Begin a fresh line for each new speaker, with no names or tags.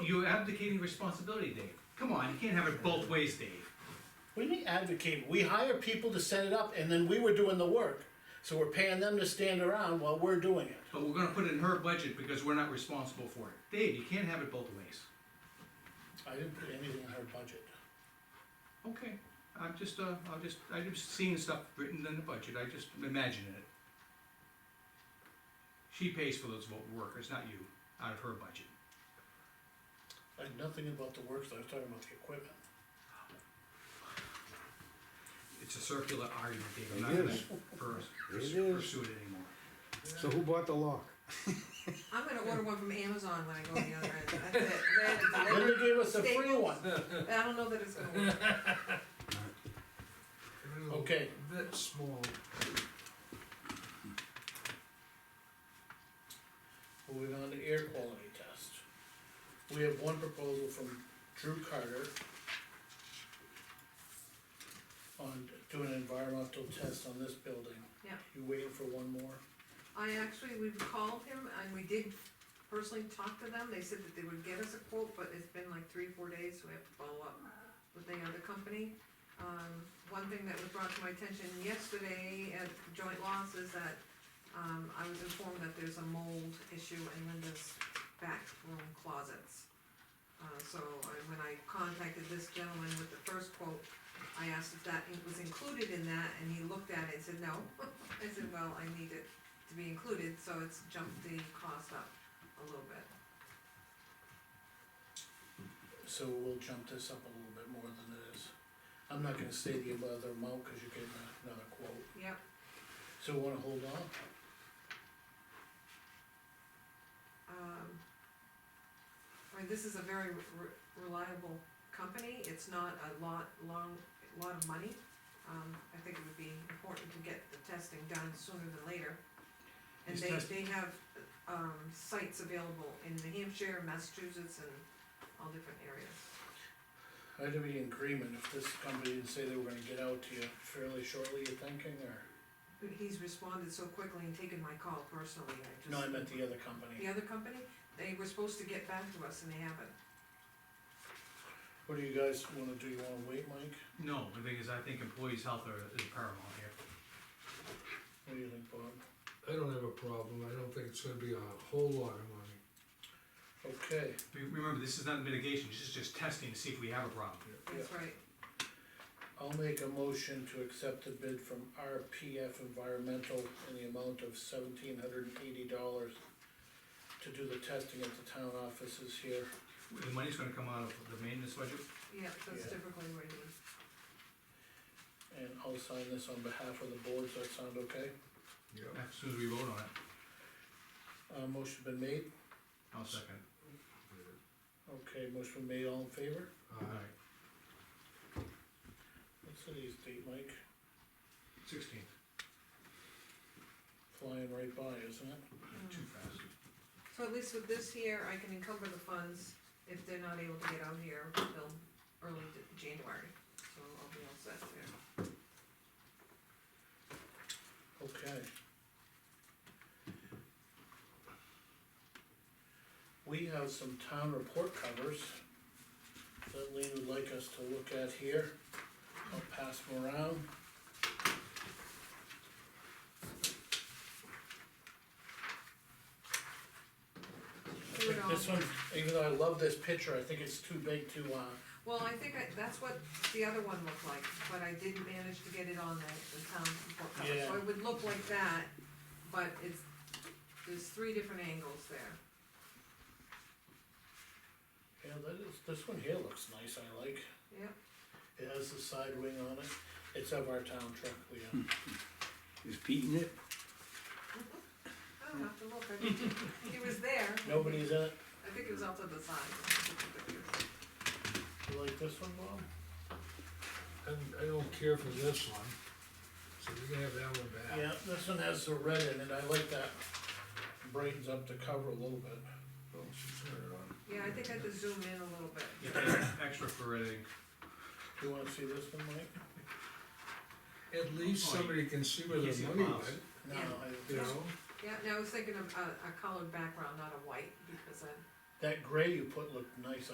you're abdicating responsibility, Dave. Come on, you can't have it both ways, Dave.
What do you mean advocate? We hire people to set it up and then we were doing the work. So we're paying them to stand around while we're doing it.
But we're gonna put it in her budget because we're not responsible for it. Dave, you can't have it both ways.
I didn't put anything in her budget.
Okay, I'm just, uh, I'm just, i just seeing stuff written in the budget, I just imagining it. She pays for those vote workers, not you, out of her budget.
I had nothing about the works, I was talking about the equipment.
It's a circular argument, Dave,
It
I'm not gonna
is.
pers-
It
pers-
is.
pursue it anymore.
So who bought the lock?
I'm gonna order one from Amazon when I go on the other end. I think that- that is
Linda gave us a free
Staples.
one.
I don't know that it's gonna work.
Okay,
That small.
moving on to air quality test. We have one proposal from Drew Carter. On doing an environmental test on this building.
Yeah.
You waiting for one more?
I actually, we called him and we did personally talk to them, they said that they would get us a quote, but it's been like three, four days, so we have to follow up with the other company. Um, one thing that was brought to my attention yesterday at joint loss is that, um, I was informed that there's a mold issue in Linda's back room closets. Uh, so I, when I contacted this gentleman with the first quote, I asked if that was included in that, and he looked at it and said, no. I said, well, I need it to be included, so it's jumped the cost up a little bit.
So we'll jump this up a little bit more than it is. I'm not gonna say the other amount, cause you're getting another quote,
Yep,
so wanna hold on?
um, I mean, this is a very re- reliable company, it's not a lot, long, lot of money. Um, I think it would be important to get the testing done sooner than later. And
These
they,
test-
they have, um, sites available in New Hampshire, Massachusetts, and all different areas.
I'd be in agreement if this company didn't say they were gonna get out to you fairly shortly, you're thinking, or?
But He's responded so quickly and taken my call personally, I just.
No, I meant the other company.
The other company, they were supposed to get back to us and they haven't.
What do you guys wanna do, you wanna wait, Mike?
No, the thing is, I think employees' health are, is paramount here.
What do you think, Bob?
I don't have a problem, I don't think it's gonna be a whole lot of money.
Okay,
Re- Remember, this is not mitigation, this is just testing to see if we have a problem.
That's right.
I'll make a motion to accept the bid from RPF Environmental in the amount of seventeen hundred and eighty dollars to do the testing at the town offices here.
The money's gonna come out of the maintenance budget,
Yeah, that's
Yeah.
typically where you,
And I'll sign this on behalf of the board, does that sound okay?
Yeah.
as soon as we vote on it,
Uh, motion been made,
I'll second.
okay, motion been made, all in favor?
Uh,
Alright,
What's today's date, Mike?
sixteen,
Flying right by, isn't it?
too fast.
so at least with this here, I can encumber the funds if they're not able to get out here until early d- January, so I'll be all set there.
Okay. We have some town report covers that Lean would like us to look at here. I'll pass them around. I
Do it
think
all.
This one, even though I love this picture, I think it's too big to, uh,
Well, I think I, that's what the other one looked like, but I did manage to get it on the, the town report cover, so
Yeah.
it would look like that, but it's, there's three different angles there.
yeah, that is, this one here looks nice, I like.
Yep,
It has the side wing on it. It's of our town truck, Leon.
Is Pete in it?
I don't have to look, I didn't, it was there.
Nobody's in it.
I think it was out to the side.
You like this one, Bob?
I, I don't care for this one, so you can have that one back.
Yeah, this one has the red in it, I like that. Brightens up the cover a little bit.
Oh, she turned it on.
Yeah, I think I had to zoom in a little bit.
You pay Extra for editing.
You wanna see this one, Mike?
At least
Oh, you-
somebody can see where
you see
the
the
money
miles.
went,
No,
Yeah.
I-
you know?
Yeah, no, I was thinking of a, a colored background, not a white, because I,
That gray you put looked nice